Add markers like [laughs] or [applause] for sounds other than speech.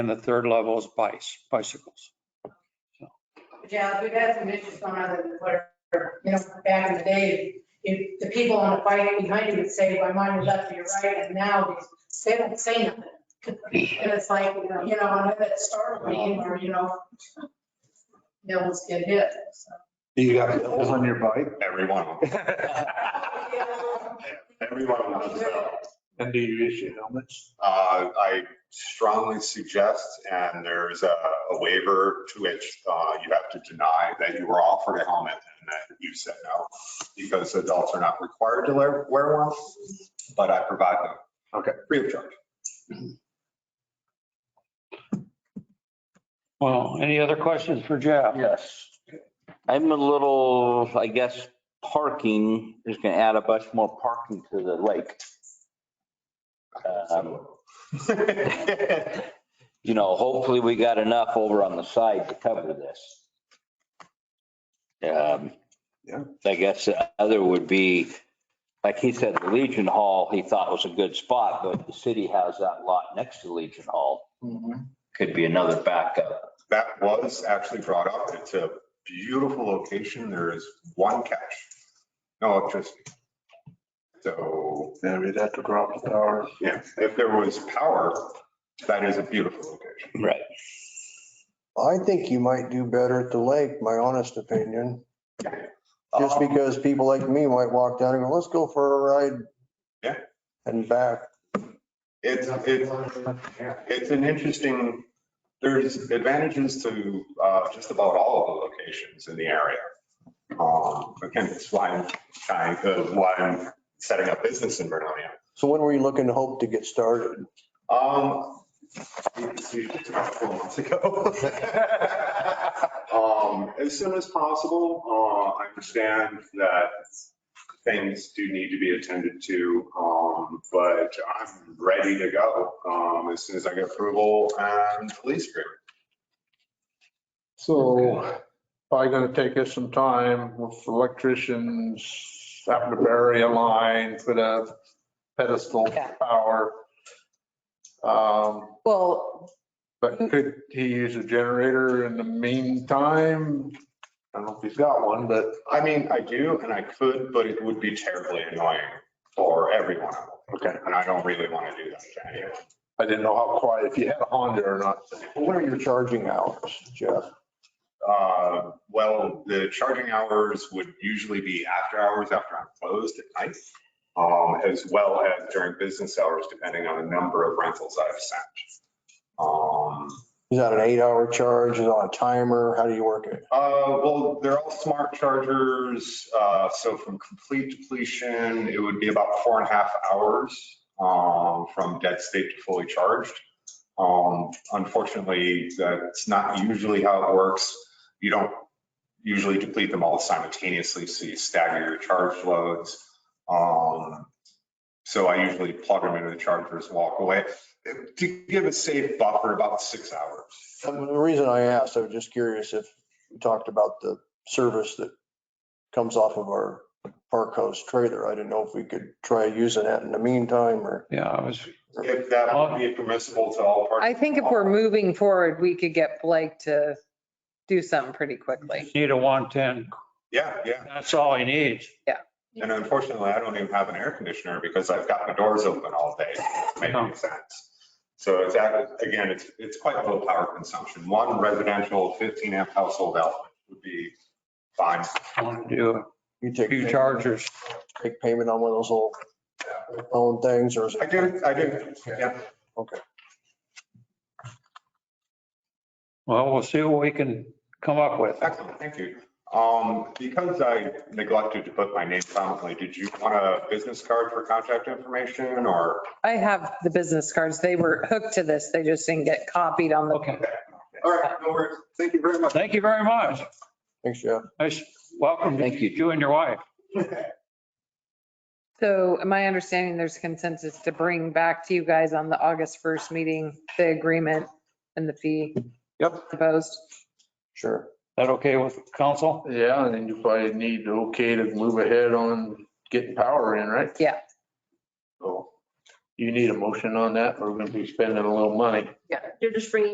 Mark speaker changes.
Speaker 1: and the third level is bice, bicycles.
Speaker 2: Yeah, we've had some issues going on with, where, you know, back in the day, if the people on the bike behind you would say, my mind is left to your right, and now they don't say nothing. And it's like, you know, you know, and that startled me, or, you know, [laughs] they almost get hit, so.
Speaker 3: You got wheels on your bike?
Speaker 4: Everyone, everyone knows that.
Speaker 3: And do you issue helmets?
Speaker 4: Uh, I strongly suggest, and there's a a waiver to which uh, you have to deny that you were offered a helmet and that you said no, because adults are not required to wear wear one, but I provide them.
Speaker 3: Okay.
Speaker 4: Free of charge. [laughs]
Speaker 1: Well, any other questions for Jeff?
Speaker 3: Yes.
Speaker 5: I'm a little, I guess, parking is going to add a bunch more parking to the lake. Um, You know, hopefully we got enough over on the side to cover this. Um,
Speaker 3: Yeah.
Speaker 5: I guess the other would be, like he said, the Legion Hall, he thought was a good spot, but the city has that lot next to Legion Hall. Could be another backup.
Speaker 4: That was actually brought up. It's a beautiful location. There is one catch, no electricity. So,
Speaker 3: Yeah, we'd have to drop the tower.
Speaker 4: yeah, if there was power, that is a beautiful location.
Speaker 5: Right.
Speaker 6: I think you might do better at the lake, my honest opinion. Just
Speaker 4: Um,
Speaker 6: because people like me might walk down and go, let's go for a ride.
Speaker 4: Yeah.
Speaker 6: And back.
Speaker 4: It's, it's, it's an interesting, there's advantages to uh, just about all of the locations in the area. Um, Again, it's why I'm trying, uh, why I'm setting up business in Vernonia.
Speaker 6: So when were you looking to hope to get started?
Speaker 4: Um, it's usually about four months ago. [laughs] Um, as soon as possible, uh, I understand that things do need to be attended to, um, but I'm ready to go, um, as soon as I get approval and police agreement.
Speaker 3: So probably gonna take us some time with electricians, having to bury a line, put a pedestal
Speaker 7: Yeah.
Speaker 3: power. Um,
Speaker 7: Well,
Speaker 3: But could he use a generator in the meantime? I don't know if he's got one, but
Speaker 4: I mean, I do and I could, but it would be terribly annoying for everyone.
Speaker 3: Okay.
Speaker 4: And I don't really want to do that to anyone.
Speaker 3: I didn't know how quiet, if you had a Honda or not.
Speaker 6: What are your charging hours, Jeff?
Speaker 4: Uh, Well, the charging hours would usually be after hours, after I'm closed at night, um, as well as during business hours, depending on the number of rentals I've sent. Um,
Speaker 6: Is that an eight-hour charge? Is it on a timer? How do you work it?
Speaker 4: uh, Well, they're all smart chargers, uh, so from complete depletion, it would be about four and a half hours um, from dead state to fully charged. Um, Unfortunately, that's not usually how it works. You don't usually deplete them all simultaneously, so you stagger your charge loads. Um, So I usually plug them into the chargers, walk away. To give a safe buffer, about six hours.
Speaker 6: Um, The reason I asked, I was just curious if you talked about the service that comes off of our park host trailer. I didn't know if we could try using that in the meantime or.
Speaker 1: Yeah, I was,
Speaker 4: If that would be permissible to all parties.
Speaker 7: I think if we're moving forward, we could get Blake to do something pretty quickly.
Speaker 1: need a 110.
Speaker 4: Yeah, yeah.
Speaker 1: That's all he needs.
Speaker 4: And unfortunately, I don't even have an air conditioner because I've got my doors open all day.
Speaker 1: Uh-huh.
Speaker 4: Making sense. So it's, act- again, it's, it's quite low power consumption. One residential 15 amp household outlet would be fine.
Speaker 1: Want to do
Speaker 6: You
Speaker 1: a
Speaker 6: take.
Speaker 1: few chargers.
Speaker 6: take payment on one of those little phone things or is
Speaker 4: I
Speaker 6: it?
Speaker 4: do, I do, yeah.
Speaker 1: Well, we'll see what we can come up with.
Speaker 4: Excellent, thank you. Um, because I neglected to put my name prominently, did you want a business card for contact information or?
Speaker 7: I have the business cards. They were hooked to this. They just didn't get copied on the,
Speaker 1: Okay,
Speaker 4: All right, no worries. Thank you very much.
Speaker 1: thank you very much.
Speaker 6: Thanks, Jeff.
Speaker 1: Nice, welcome to
Speaker 5: Thank you.
Speaker 1: you and your wife.
Speaker 7: so my understanding, there's consensus to bring back to you guys on the August 1st meeting, the agreement and the fee.
Speaker 1: Yep.
Speaker 7: Proposed.
Speaker 6: Sure.
Speaker 1: That okay with council?
Speaker 3: Yeah, and then you probably need okay to move ahead on getting power in, right?
Speaker 7: Yeah.
Speaker 3: So you need a motion on that, or we're gonna be spending a little money.
Speaker 8: Yeah, you're just bringing